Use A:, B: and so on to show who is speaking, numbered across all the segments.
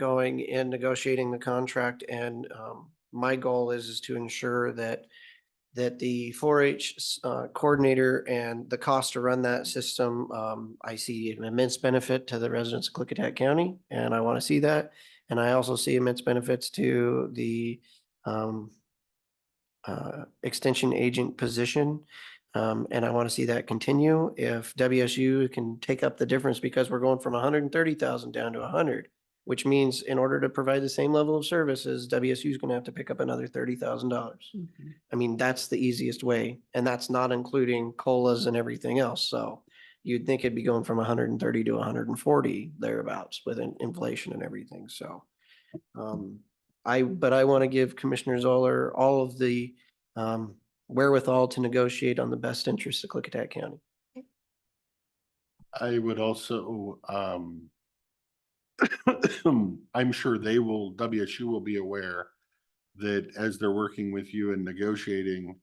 A: going in negotiating the contract and um, my goal is, is to ensure that that the four H uh, coordinator and the cost to run that system, um, I see an immense benefit to the residents of Clickitat County, and I want to see that. And I also see immense benefits to the um, uh, extension agent position. Um, and I want to see that continue. If WSU can take up the difference because we're going from hundred and thirty thousand down to hundred, which means in order to provide the same level of services, WSU is going to have to pick up another thirty thousand dollars.
B: Mm-hmm.
A: I mean, that's the easiest way, and that's not including colas and everything else, so you'd think it'd be going from hundred and thirty to hundred and forty thereabouts with in- inflation and everything, so. Um, I, but I want to give Commissioner Zoller all of the um wherewithal to negotiate on the best interest of Clickatack County.
C: I would also, um. I'm sure they will, WSU will be aware that as they're working with you and negotiating.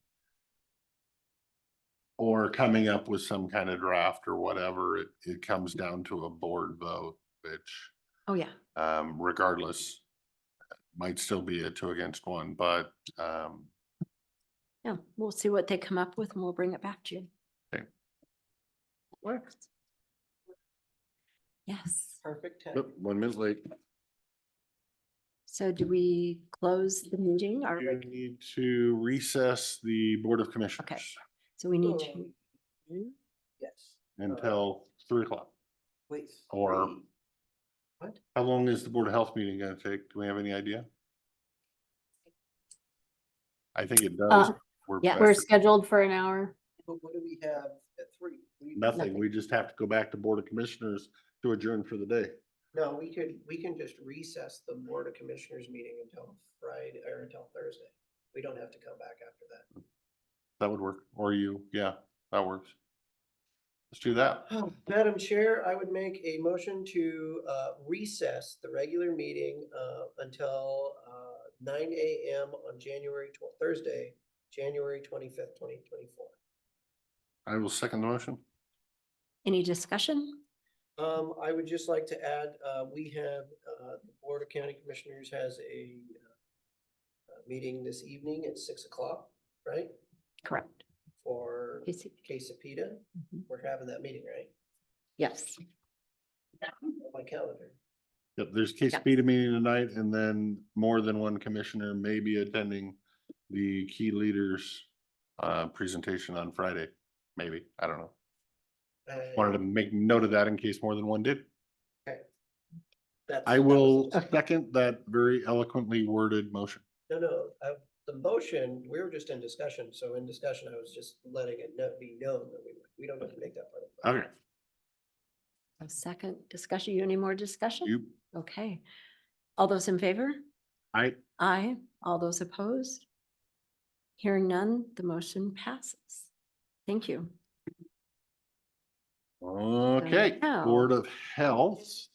C: Or coming up with some kind of draft or whatever, it, it comes down to a board vote, which,
B: Oh, yeah.
C: um, regardless. Might still be a two against one, but, um,
B: Yeah, we'll see what they come up with and we'll bring it back to you.
C: Okay.
B: Works. Yes.
A: Perfect.
C: oh, one minute late.
B: So do we close the meeting or,
C: You need to recess the Board of Commissioners
B: so we need to?
A: Oh, Yes,
C: until three o'clock.
A: please.
C: Or- How long is the Board of Health meeting gonna take? Do we have any idea? I think it does.
D: Uh,
C: We're
B: yeah,
C: back
D: We're
C: to
D: scheduled for an hour.
A: But what do we have at three?
C: Nothing. We just have to go back to Board of Commissioners to adjourn for the day.
A: No, we could, we can just recess the Board of Commissioners meeting until Friday or until Thursday. We don't have to come back after that.
C: That would work. Or you, yeah, that works. Let's do that.
A: Madam Chair, I would make a motion to uh, recess the regular meeting uh, until uh, nine AM on January, tw- Thursday, January twenty-fifth, twenty twenty-four.
C: I will second the motion.
B: Any discussion?
A: Um, I would just like to add, uh, we have, uh, the Board of County Commissioners has a uh, uh, meeting this evening at six o'clock, right?
B: Correct.
A: For
B: Casey?
A: Quesapita.
B: Mhm.
A: We're having that meeting, right?
B: Yes.
A: On my calendar.
C: Yep, there's case
B: Yeah.
C: beta meeting tonight and then more than one commissioner may be attending the key leaders uh, presentation on Friday, maybe. I don't know.
A: I-
C: Wanted to make note of that in case more than one did.
A: that's-
C: I
A: that was-
C: will second that very eloquently worded motion.
A: No, no, I, the motion, we were just in discussion, so in discussion, I was just letting it kno- be known that we, we don't have to make that part of it.
C: Okay,
B: A second discussion. You any more discussion?
C: you,
B: Okay. All those in favor?
C: I,
B: Aye. All those opposed? Hearing none, the motion passes. Thank you.
C: okay,
B: now-
C: Board of Health.